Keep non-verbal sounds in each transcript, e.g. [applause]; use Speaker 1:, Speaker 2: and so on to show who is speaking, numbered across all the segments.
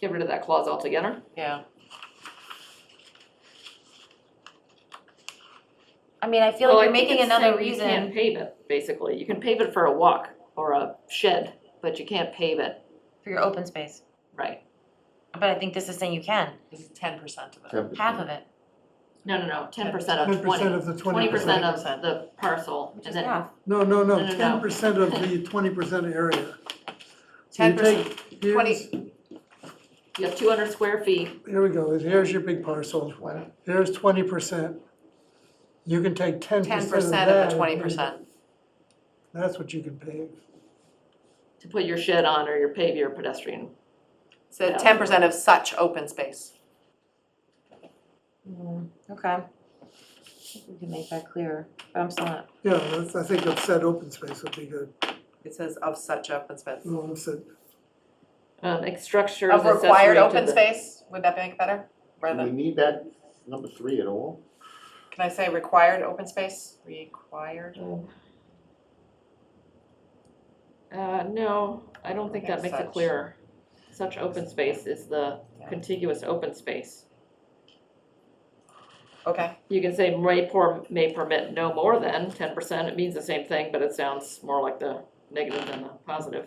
Speaker 1: get rid of that clause altogether.
Speaker 2: yeah.
Speaker 3: I mean, I feel
Speaker 1: Well, I
Speaker 3: like you're
Speaker 1: think
Speaker 3: making
Speaker 1: it's
Speaker 3: another
Speaker 1: saying You can't
Speaker 3: reason.
Speaker 1: pave it, basically. You can pave it for a walk or a shed, but you can't pave it,
Speaker 3: For your open space,
Speaker 1: right?
Speaker 3: but I think this is saying you can,
Speaker 2: This is ten percent of it.
Speaker 4: Ten
Speaker 3: half
Speaker 4: percent.
Speaker 3: of it,
Speaker 1: No, no, no, ten percent
Speaker 2: uh,
Speaker 1: of
Speaker 5: Ten percent
Speaker 1: twenty.
Speaker 5: of the twenty
Speaker 1: Twenty percent
Speaker 5: percent.
Speaker 1: of the parcel
Speaker 3: which
Speaker 1: and
Speaker 3: is
Speaker 1: then,
Speaker 3: half.
Speaker 5: No, no,
Speaker 1: No,
Speaker 5: no,
Speaker 1: no, no.
Speaker 5: ten percent
Speaker 2: [laughs]
Speaker 5: of the twenty percent area. So you
Speaker 2: 10%,
Speaker 5: take- here's-
Speaker 2: 20.
Speaker 1: you have two hundred square feet,
Speaker 5: Here we go, here's your big parcel,
Speaker 4: Twenty,
Speaker 5: here's twenty percent. You can take ten percent
Speaker 2: Ten
Speaker 5: of that.
Speaker 2: percent of
Speaker 5: and
Speaker 2: the
Speaker 5: make
Speaker 2: twenty
Speaker 5: it-
Speaker 2: percent.
Speaker 5: That's what you can pave.
Speaker 1: to put your shed on or your pave your pedestrian.
Speaker 2: So
Speaker 1: Yeah.
Speaker 2: ten percent of such open space.
Speaker 3: Mm-hmm, Okay. I think We can make that clearer, but I'm still not,
Speaker 5: Yeah, that's, I think upset open space would be good,
Speaker 2: It says of such open space.
Speaker 5: Well, upset,
Speaker 1: Um, ex- structures
Speaker 2: Of
Speaker 1: accessory
Speaker 2: required
Speaker 1: to
Speaker 2: open
Speaker 1: the-
Speaker 2: space, would that make it better?
Speaker 4: do we
Speaker 2: Rather,
Speaker 4: need that number three at all?
Speaker 1: Mm-hmm.
Speaker 2: can I say required open space? Required.
Speaker 1: Um, Uh, no, I don't think that
Speaker 2: Okay,
Speaker 1: makes it
Speaker 2: such.
Speaker 1: clearer. Such open space is the
Speaker 2: Yeah.
Speaker 1: contiguous open space.
Speaker 2: Okay,
Speaker 1: You can say may per, may permit no more than ten percent, it means the same thing, but it sounds more like the negative than the positive.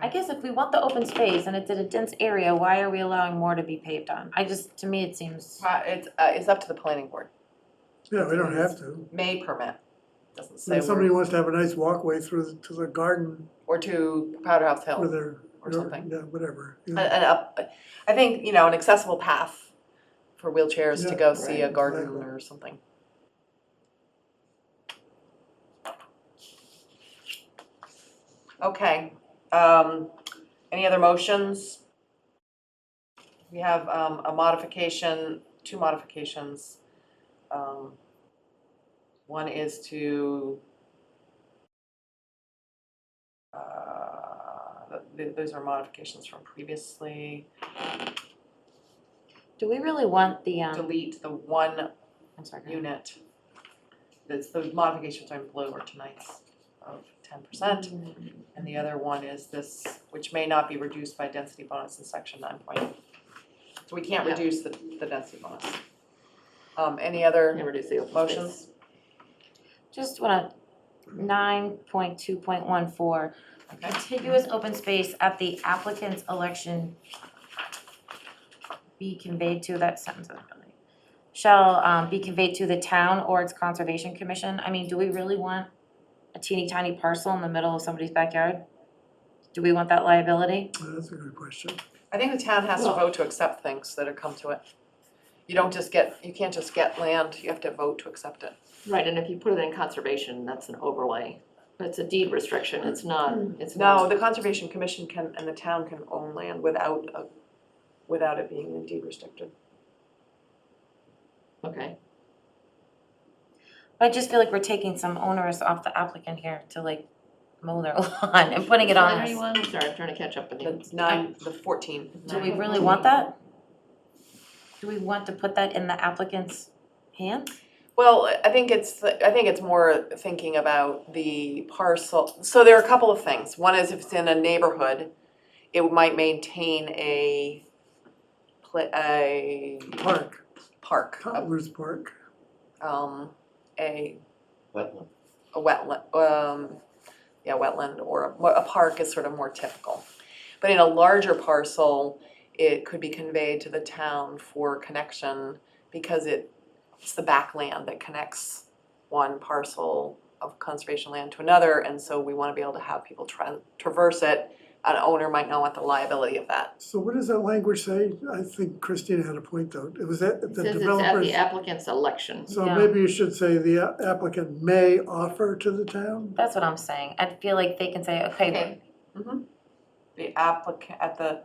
Speaker 3: I guess if we want the open space and it's in a dense area, why are we allowing more to be paved on? I just, to me, it seems,
Speaker 2: Uh, it's, uh, it's up to the planning board.
Speaker 5: yeah, we don't have to.
Speaker 2: May permit, doesn't say,
Speaker 5: If somebody
Speaker 2: where-
Speaker 5: wants to have a nice walkway through, the- to the garden
Speaker 2: or to Powder House Hill.
Speaker 5: with their,
Speaker 2: Or something.
Speaker 5: yeah, whatever. you
Speaker 2: An,
Speaker 5: know.
Speaker 2: an up, I think, you know, an accessible path for wheelchairs to
Speaker 5: Yeah,
Speaker 2: go see a
Speaker 5: right,
Speaker 2: garden
Speaker 5: exactly.
Speaker 2: or something. Okay, um, any other motions? We have, um, a modification, two modifications. Um, One is to uh, th- those are modifications from previously.
Speaker 3: do we really want the, um,
Speaker 2: Delete the one
Speaker 3: I'm sorry. go ahead.
Speaker 2: unit. That's the modifications are in blue or tonight's of ten percent. And the other one is this, which may not be reduced by density bonus in section nine point. So we can't
Speaker 1: Yeah.
Speaker 2: reduce the, the density bonus. Um, any other
Speaker 1: And reduce the open space.
Speaker 2: motions?
Speaker 3: Just wanna, nine point two point one four,
Speaker 2: Okay.
Speaker 3: contiguous open space at the applicant's election be conveyed to, that sentence is really, shall, um, be conveyed to the town or its conservation commission, I mean, do we really want a teeny tiny parcel in the middle of somebody's backyard? Do we want that liability?
Speaker 2: Uh,
Speaker 5: That's a good question.
Speaker 2: I think the town has to
Speaker 1: Well-
Speaker 2: vote to accept things that are come to it. You don't just get, you can't just get land, you have to vote to accept it.
Speaker 1: Right, and if you put it in conservation, that's an overlay. It's a deed restriction, it's not, it's
Speaker 2: No,
Speaker 1: not,
Speaker 2: the Conservation Commission can, and the town can own land without a, without it being indeed restricted.
Speaker 1: okay.
Speaker 3: I just feel like we're taking some onerous off the applicant here to like mow their [laughs] lawn and putting it on us.
Speaker 1: Anyone? Sorry, I'm trying to catch up with you.
Speaker 2: The nine, the fourteen.
Speaker 3: Do we really want that? Do we want to put that in the applicant's hands?
Speaker 2: Well, I think it's, I think it's more thinking about the parcel, so there are a couple of things. One is if it's in a neighborhood, it might maintain a, pla- a
Speaker 5: Park,
Speaker 2: park, a-
Speaker 5: Cotler's Park,
Speaker 2: um, a
Speaker 4: That one.
Speaker 2: a wetland, um, yeah, wetland or a, well, a park is sort of more typical. But in a larger parcel, it could be conveyed to the town for connection because it, it's the backland that connects one parcel of conservation land to another, and so we wanna be able to have people tra- traverse it. An owner might not want the liability of that.
Speaker 5: So what does that language say? I think Christina had a point though. It was that
Speaker 1: It
Speaker 5: the
Speaker 1: says it's at
Speaker 5: developers.
Speaker 1: the applicant's election.
Speaker 5: So
Speaker 3: Yeah.
Speaker 5: maybe you should say the applicant may offer to the town?
Speaker 3: That's what I'm saying. I feel like they can say, okay,
Speaker 2: Mhm. The applicant, at the,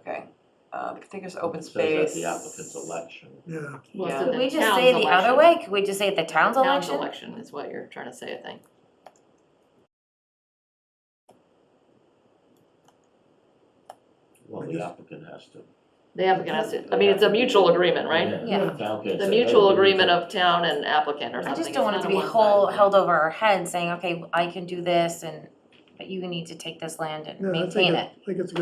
Speaker 2: okay, uh, the contiguous open
Speaker 4: It says
Speaker 2: space.
Speaker 4: At the applicant's election.
Speaker 5: Yeah,
Speaker 1: Well,
Speaker 2: Yeah.
Speaker 1: so
Speaker 3: could
Speaker 1: the
Speaker 3: we just
Speaker 1: town's
Speaker 3: say the other
Speaker 1: election.
Speaker 3: way? Could we just say the
Speaker 1: Town's
Speaker 3: town's election?
Speaker 1: election is what you're trying to say, I think.
Speaker 4: Well,
Speaker 5: I
Speaker 4: the
Speaker 5: guess-
Speaker 4: applicant has to.
Speaker 1: The applicant has to, I mean, it's a mutual agreement, right?
Speaker 3: Yeah.
Speaker 4: The town can't
Speaker 1: The
Speaker 4: say,
Speaker 1: mutual
Speaker 4: "Hey, we
Speaker 1: agreement
Speaker 4: need
Speaker 1: of town and applicant or
Speaker 3: I
Speaker 1: something.
Speaker 3: just don't want it
Speaker 1: It's
Speaker 3: to
Speaker 1: not
Speaker 3: be
Speaker 1: a
Speaker 3: whole,
Speaker 1: one-sided
Speaker 3: held over our head saying, okay, I can do this and, but you need to take this land and
Speaker 5: yeah, I
Speaker 3: maintain
Speaker 5: think,
Speaker 3: it.
Speaker 5: it- I think it's a